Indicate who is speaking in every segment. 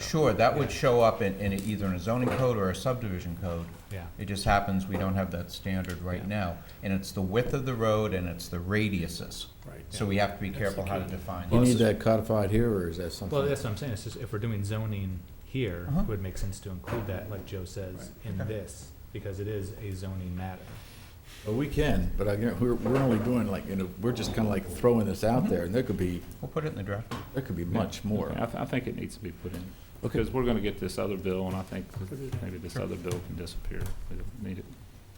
Speaker 1: sure, that would show up in, in either in a zoning code or a subdivision code.
Speaker 2: Yeah.
Speaker 1: It just happens we don't have that standard right
Speaker 2: Yeah.
Speaker 1: now. And it's the width of the road and it's the radiuses.
Speaker 2: Right.
Speaker 1: So we have to be
Speaker 2: That's
Speaker 1: careful
Speaker 2: the
Speaker 1: how to
Speaker 2: key.
Speaker 1: define
Speaker 3: You need
Speaker 1: those.
Speaker 3: that codified here, or is that something?
Speaker 2: Well, that's what I'm saying, it's just if we're doing zoning here,
Speaker 1: Uh-huh.
Speaker 2: it would make sense to include that, like Joe says, in
Speaker 1: Okay.
Speaker 2: this, because it is a zoning matter.
Speaker 3: Well, we can, but I, we're, we're only doing like, you know, we're just kind of like throwing this out there, and there could be,
Speaker 1: We'll put it in the draft.
Speaker 3: there could be much more.
Speaker 4: I, th- I think it needs to be put in,
Speaker 3: Okay.
Speaker 4: because we're gonna get this other bill, and I think that maybe this other bill can disappear. We don't need it.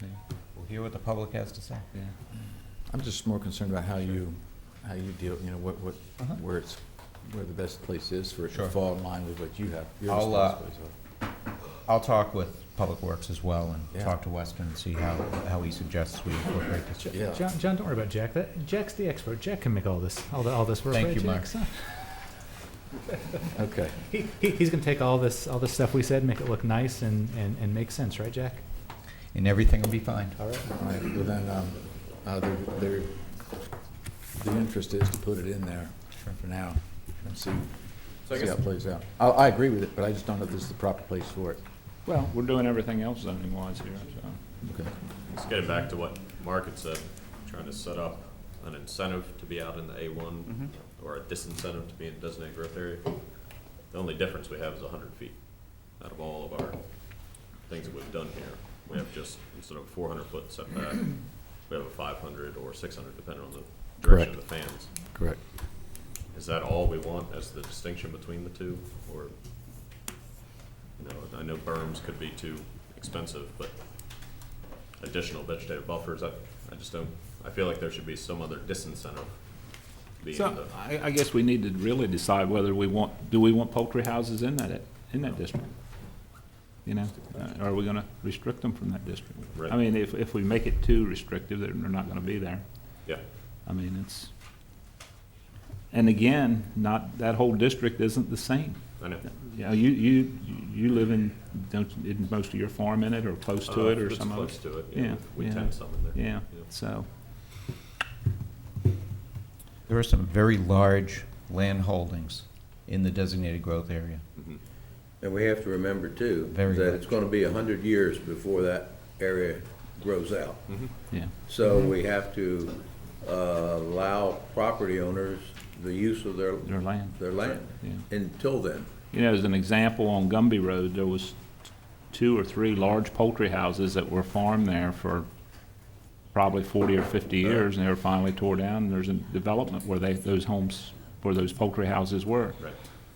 Speaker 4: Yeah,
Speaker 1: We'll hear what the public has to say.
Speaker 4: yeah.
Speaker 3: I'm just more concerned about how you, how you deal, you know, what, what,
Speaker 1: Uh-huh.
Speaker 3: where it's, where the best place is for it
Speaker 1: Sure.
Speaker 3: to fall in line with what you have, your
Speaker 1: I'll, uh,
Speaker 3: responsibilities are.
Speaker 1: I'll talk with Public Works as well and
Speaker 3: Yeah.
Speaker 1: talk to Weston and see how, how he suggests we incorporate this.
Speaker 3: Yeah.
Speaker 2: John, John, don't worry about Jack, that, Jack's the expert, Jack can make all this, all the, all this work,
Speaker 1: Thank
Speaker 2: right,
Speaker 1: you, Mark.
Speaker 2: Jack? So-
Speaker 3: Okay,
Speaker 2: He, he, he's gonna take all this, all this stuff we said, make it look nice and, and, and make sense, right, Jack?
Speaker 1: And everything will be fine.
Speaker 2: All right.
Speaker 3: all right, well then, um, uh, there, there, the interest is to put it in there for now, and see,
Speaker 4: So I
Speaker 3: see how
Speaker 4: guess-
Speaker 3: it plays out. I, I agree with it, but I just don't know if this is the proper place for it.
Speaker 4: Well, we're doing everything else zoning wise here, so.
Speaker 3: Okay.
Speaker 5: Just getting back to what Mark had said, trying to set up an incentive to be out in the A one, or a disincentive to be in designated growth area. The only difference we have is hundred feet out of all of our things that we've done here. We have just, instead of four hundred foot setback, we have a five hundred or six hundred, depending on the direction of the fans.
Speaker 3: Correct.
Speaker 5: Is that all we want as the distinction between the two, or, you know, I know berms could be too expensive, but additional vegetative buffers, I, I just don't, I feel like there should be some other disincentive being
Speaker 4: So,
Speaker 5: the, uh,
Speaker 4: I, I guess we need to really decide whether we want, do we want poultry houses in that, in that district? You know, uh, are we gonna restrict them from that district?
Speaker 5: Right.
Speaker 4: I mean, if, if we make it too restrictive, they're, they're not gonna be there.
Speaker 5: yeah,
Speaker 4: I mean, it's, and again, not, that whole district isn't the same.
Speaker 5: I know.
Speaker 4: You know, you, you, you live in, don't, isn't most of your farm in it, or close to it,
Speaker 5: Uh,
Speaker 4: or
Speaker 5: it's
Speaker 4: some of
Speaker 5: Close
Speaker 4: it?
Speaker 5: to it, yeah,
Speaker 4: Yeah,
Speaker 5: we
Speaker 4: yeah.
Speaker 5: tend some in there.
Speaker 4: Yeah, so,
Speaker 1: There are some very large land holdings in the designated growth area.
Speaker 6: And we have to remember too,
Speaker 1: Very
Speaker 6: that
Speaker 1: good.
Speaker 6: it's gonna be a hundred years before that area grows out.
Speaker 4: yeah,
Speaker 6: So we have to uh, allow property owners the use of their,
Speaker 4: their land.
Speaker 6: their land
Speaker 4: Yeah.
Speaker 6: until then.
Speaker 4: You know, as an example, on Gumby Road, there was two or three large poultry houses that were farmed there for probably forty or fifty years, and they were finally tore down, and there's a development where they, those homes, where those poultry houses were.
Speaker 5: Right,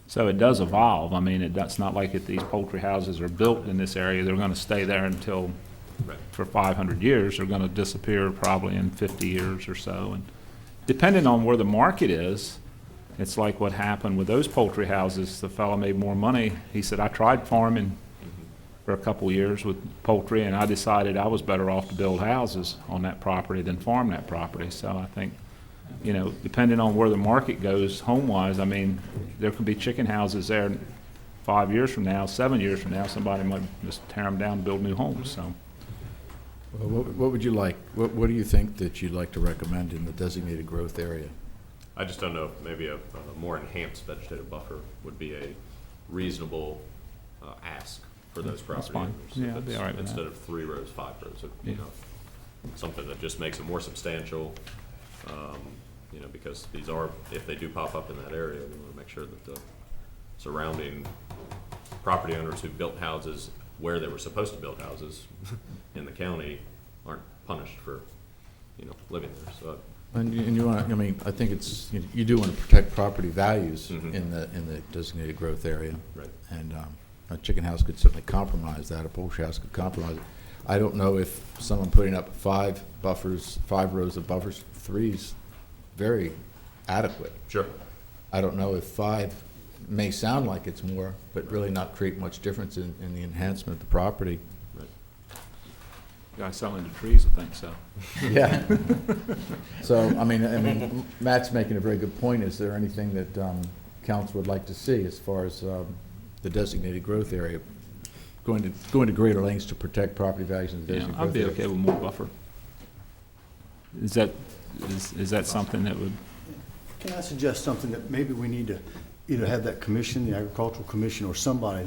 Speaker 4: So it does evolve. I mean, it, that's not like if these poultry houses are built in this area, they're gonna stay there until,
Speaker 5: right,
Speaker 4: for five hundred years, they're gonna disappear probably in fifty years or so. And depending on where the market is, it's like what happened with those poultry houses. The fellow made more money. He said, I tried farming for a couple years with poultry, and I decided I was better off to build houses on that property than farm that property. So I think, you know, depending on where the market goes home-wise, I mean, there could be chicken houses there five years from now, seven years from now, somebody might just tear them down and build new homes, so.
Speaker 3: Well, What what would you like, what what do you think that you'd like to recommend in the designated growth area?
Speaker 5: I just don't know, if maybe a, a more enhanced vegetative buffer would be a reasonable, uh, ask for those property
Speaker 4: fine.
Speaker 5: owners. If
Speaker 4: Yeah, I'd be
Speaker 5: it's-
Speaker 4: all right with that.
Speaker 5: Instead of three rows, five rows, if, you
Speaker 4: Yeah.
Speaker 5: know, something that just makes it more substantial, um, you know, because these are, if they do pop up in that area, we wanna make sure that the surrounding property owners who built houses where they were supposed to build houses in the county aren't punished for, you know, living there, so
Speaker 3: And you- and you want, I mean, I think it's, you- you do want to protect property values
Speaker 5: Mhm.
Speaker 3: in the, in the designated growth area.
Speaker 5: Right.
Speaker 3: And um, a chicken house could certainly compromise that, a poultry house could compromise it. I don't know if someone putting up five buffers, five rows of buffers, three's very adequate.
Speaker 5: Sure.
Speaker 3: I don't know if five may sound like it's more, but really not create much difference in, in the enhancement of the property.
Speaker 5: Right.
Speaker 4: Guy selling the trees, I think so.
Speaker 3: Yeah. So, I mean, I mean, Matt's making a very good point. Is there anything that um, council would like to see as far as um, the designated growth area? Going to, going to greater lengths to protect property values in the
Speaker 4: Yeah,
Speaker 3: designated
Speaker 4: I'd
Speaker 3: growth
Speaker 4: be
Speaker 3: area?
Speaker 4: okay with more buffer. Is that, is, is that something that would,
Speaker 7: Can I suggest something that maybe we need to either have that commission, the agricultural commission, or somebody